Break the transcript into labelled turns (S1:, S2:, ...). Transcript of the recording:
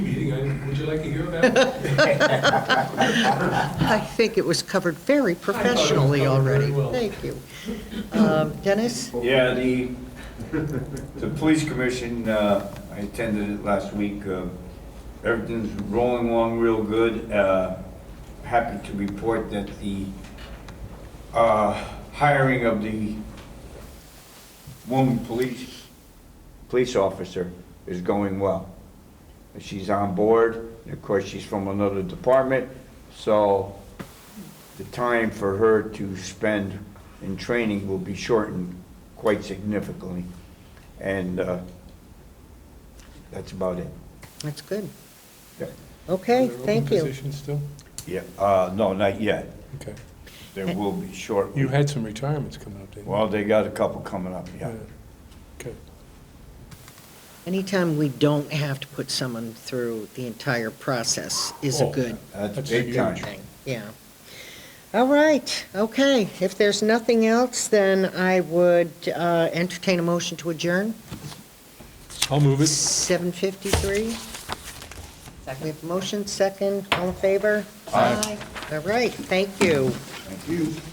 S1: Would you like to hear about it?
S2: I think it was covered very professionally
S1: covered very
S2: already.
S1: well.
S2: Thank you. Um, Dennis?
S3: Yeah, the, the police commission, uh, I attended it last week. uh, Everything's rolling along real good. Uh, Happy to report that the uh, hiring of the woman police, police officer is going well. She's on board. and Of course, she's from another department, so the time for her to spend in training will be shortened quite significantly. And uh, that's about it.
S2: That's good.
S3: Yeah.
S2: Okay,
S1: Are there open
S2: thank you.
S1: Positions still?
S3: Yeah, uh, no, not yet.
S1: Okay.
S3: There will be short.
S1: You had some retirements coming up, didn't you?
S3: Well, they got a couple coming up, yeah.
S1: Okay.
S2: Anytime we don't have to put someone through the entire process is a
S1: Oh,
S2: good
S3: That's
S1: That's
S3: big
S1: huge.
S3: time.
S2: thing, yeah. All right, okay. If there's nothing else, then I would uh, entertain a motion to adjourn.
S1: I'll move it.
S2: 7:53. We
S4: Second.
S2: have motion, second, all in favor? Aye. All right, thank you.
S3: Thank you.